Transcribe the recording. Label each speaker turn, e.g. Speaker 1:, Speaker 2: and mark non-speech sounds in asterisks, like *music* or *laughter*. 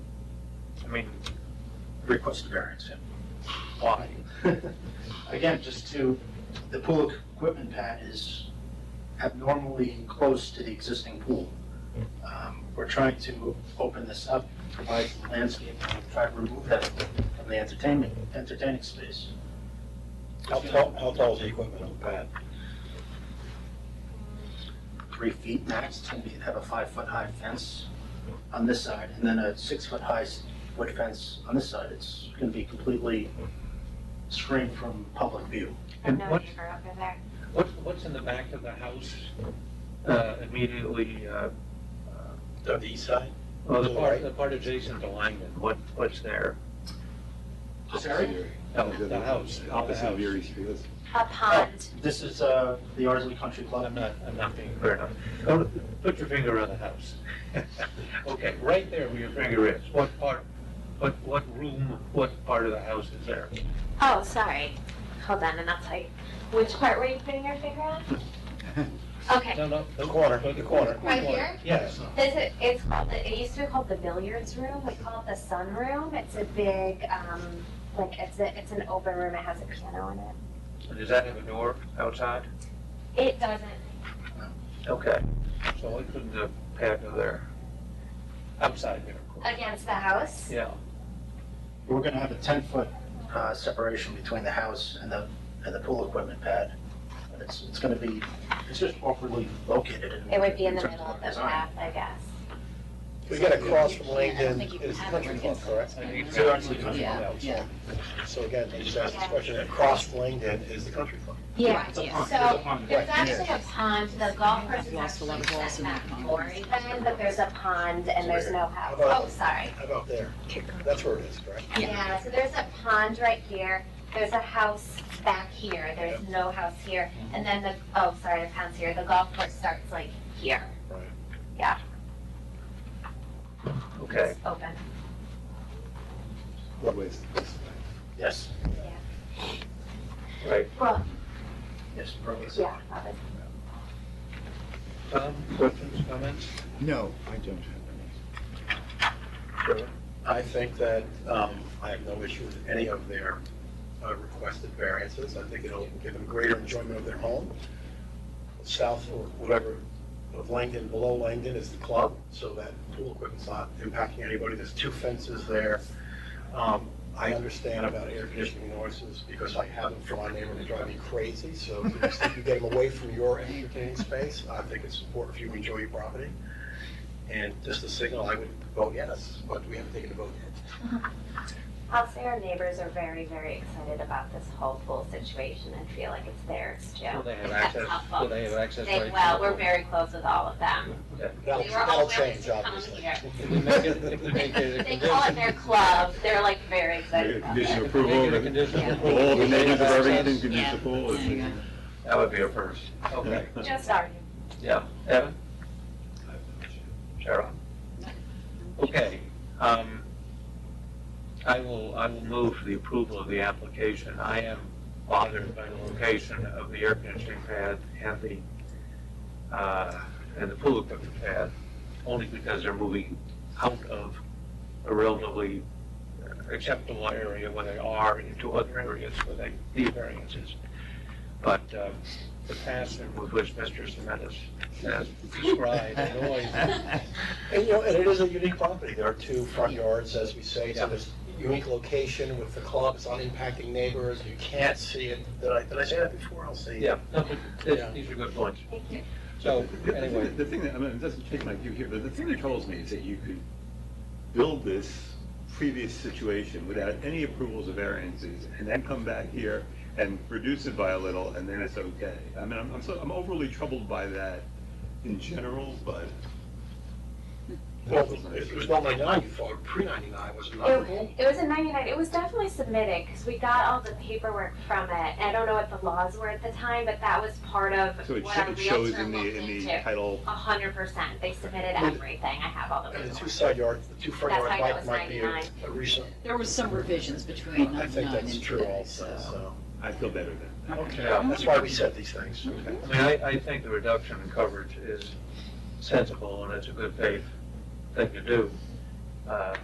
Speaker 1: I mean, request a variance, yeah. Why?
Speaker 2: *laughs* Again, just to, the pool equipment pad is abnormally close to the existing pool. Um, We're trying to open this up, provide some landscaping, and try to remove that from the entertainment, entertaining space.
Speaker 3: How tall, how tall is the equipment on the pad?
Speaker 2: Three feet max, it's gonna be, have a five-foot-high fence on this side, and then a six-foot-high s- wood fence on this side. It's gonna be completely screened from public view.
Speaker 1: And
Speaker 4: I'm no
Speaker 1: what-
Speaker 4: neighbor up in there.
Speaker 1: What's, what's in the back of the house, uh, immediately, uh,
Speaker 3: On the east side?
Speaker 2: Oh,
Speaker 1: well, the part, the part adjacent to Langdon, what, what's there?
Speaker 2: This area?
Speaker 1: No, the house, the house.
Speaker 5: Street. That's-
Speaker 4: A pond.
Speaker 2: This is uh, the Ardsley Country
Speaker 1: I'm
Speaker 2: Club.
Speaker 1: not, I'm not being clear enough. Go, to- put your finger on the house. *laughs* Okay, right there where your finger is, what part, what, what room, what part of the house is there?
Speaker 4: Oh, sorry. Hold on, and I'll tell you. Which part were you putting your finger on?
Speaker 1: *laughs*
Speaker 4: Okay,
Speaker 1: No, no, the corner, the corner.
Speaker 4: Right here?
Speaker 1: Yes.
Speaker 4: this is, it's called, the- it used to be called the billiards room. We call it the sun room. It's a big, um, like, it's a, it's an open room. It has a piano in it.
Speaker 1: And Does that have a door outside?
Speaker 4: It doesn't,
Speaker 1: Okay, so it couldn't have had no there. Outside there, of course.
Speaker 4: against the house.
Speaker 1: Yeah.
Speaker 2: We're gonna have a ten-foot uh, separation between the house and the, and the pool equipment pad. And It's, it's gonna be, it's just awkwardly located. in-
Speaker 4: It would be in the
Speaker 2: terms
Speaker 4: middle of the
Speaker 2: design.
Speaker 4: path, I guess.
Speaker 3: We got across from
Speaker 6: I don't
Speaker 3: Langdon
Speaker 6: think you
Speaker 3: is
Speaker 6: can have
Speaker 3: Country
Speaker 6: it
Speaker 3: Club, correct?
Speaker 1: I think it's
Speaker 2: So actually,
Speaker 1: outside.
Speaker 2: yeah,
Speaker 6: yeah.
Speaker 3: So again, they just asked this question, across from Langdon is the Country Club.
Speaker 4: Yeah.
Speaker 6: Right,
Speaker 2: It's a pond, it's a
Speaker 4: So
Speaker 2: pond,
Speaker 4: there's
Speaker 2: right.
Speaker 4: actually a pond, the golf course is
Speaker 6: Lost a lot
Speaker 4: actually
Speaker 6: of balls
Speaker 4: set
Speaker 6: in
Speaker 4: back
Speaker 6: that pond.
Speaker 4: glory then, but there's a pond and there's no house. Oh, sorry.
Speaker 3: How about there? That's where it is, correct?
Speaker 6: Yeah.
Speaker 4: Yeah, so there's a pond right here, there's a house back here, there's no house here, and then the, oh, sorry, the pond's here, the golf course starts like here,
Speaker 1: Okay,
Speaker 4: it's open.
Speaker 5: Roadways.
Speaker 2: Yes,
Speaker 1: right.
Speaker 4: Well,
Speaker 2: yes, perfect.
Speaker 4: *laughs* yeah, probably.
Speaker 1: Tom, questions, comments?
Speaker 5: No, I don't have
Speaker 3: I think that um, I have no issue with any of their uh, requested variances. I think it'll give them greater enjoyment of their home. South or whatever of Langdon, below Langdon is the club, so that pool equipment's not impacting anybody. There's two fences there. Um, I understand about air conditioning noises because I have them from my neighbor and they drive me crazy. So to the extent you get them away from your entertaining space, I think it's important if you enjoy your property. And just a signal, I would vote yes, but we haven't taken a vote yet.
Speaker 4: I'll say our neighbors are very, very excited about this whole pool situation and feel like it's theirs too.
Speaker 1: Will they have
Speaker 4: That's
Speaker 1: access,
Speaker 4: helpful.
Speaker 1: will they have access
Speaker 4: They,
Speaker 1: rights?
Speaker 4: well, we're very close with all of them.
Speaker 3: That'll,
Speaker 4: They were all
Speaker 3: that'll
Speaker 4: willing
Speaker 3: change,
Speaker 4: to come
Speaker 3: obviously.
Speaker 4: here.
Speaker 1: If we make it- if we make it a
Speaker 4: They call it
Speaker 1: condition-
Speaker 4: their club, they're like very
Speaker 5: any.
Speaker 4: excited about it.
Speaker 5: Condition
Speaker 1: If we
Speaker 5: approval,
Speaker 1: make it a
Speaker 5: the
Speaker 1: condition
Speaker 6: Yeah.
Speaker 1: of approval,
Speaker 5: all the
Speaker 1: they
Speaker 5: neighbors of
Speaker 1: have
Speaker 5: everything
Speaker 1: access.
Speaker 5: can use the
Speaker 6: Yeah.
Speaker 5: pool.
Speaker 6: There you
Speaker 1: That would be a first. Okay,
Speaker 4: Just starting.
Speaker 1: yeah. Evan? Cheryl? Okay, um, I will, I will move for the approval of the application. I am bothered by the location of the air conditioning pad and the, uh, and the pool equipment pad, only because they're moving out of a relatively acceptable area where they are into other areas where they need variances. But, uh, the passion with which Mr. Semetis has
Speaker 2: *laughs*
Speaker 1: described the noise
Speaker 3: And, you know, and it is a unique property. There are two front yards, as we say, so there's unique location with the club, it's not impacting neighbors, you can't see it. Did I, did I say that before? I'll see.
Speaker 1: Yeah, no, but
Speaker 3: Yeah.
Speaker 1: th- these are good points.
Speaker 4: Thank you.
Speaker 1: So,
Speaker 5: The- the-
Speaker 1: anyway,
Speaker 5: The thing that, I mean, it doesn't take my view here, but the thing that troubles me is that you could build this previous situation without any approvals of variances, and then come back here and reduce it by a little, and then it's okay. I mean, I'm, I'm so, I'm overly troubled by that in general, but.
Speaker 3: Well, it was not 99 you fought, pre-99 was another
Speaker 4: It,
Speaker 3: rule.
Speaker 4: it was in '99. It was definitely submitted because we got all the paperwork from it. And I don't know what the laws were at the time, but that was part of
Speaker 5: So it
Speaker 4: what
Speaker 5: sho-
Speaker 4: our
Speaker 5: it shows
Speaker 4: realtor
Speaker 5: in the,
Speaker 4: looked
Speaker 5: in the
Speaker 4: into.
Speaker 5: title,
Speaker 4: A hundred percent. They submitted
Speaker 3: Well,
Speaker 4: everything. I have all the
Speaker 3: And the two
Speaker 4: paperwork.
Speaker 3: side yards, the two front
Speaker 4: That's
Speaker 3: yard
Speaker 4: why that
Speaker 3: might,
Speaker 4: was
Speaker 3: might be a
Speaker 4: 99.
Speaker 3: a recent,
Speaker 6: There was some revisions between
Speaker 3: I
Speaker 6: 99
Speaker 3: think that's
Speaker 6: and
Speaker 3: true
Speaker 6: today,
Speaker 3: also,
Speaker 6: so.
Speaker 3: so.
Speaker 5: I feel better than that.
Speaker 3: Okay, that's why we said these things.
Speaker 5: Okay.
Speaker 1: I mean, I, I think the reduction in coverage is sensible and it's a good faith thing to do. Uh,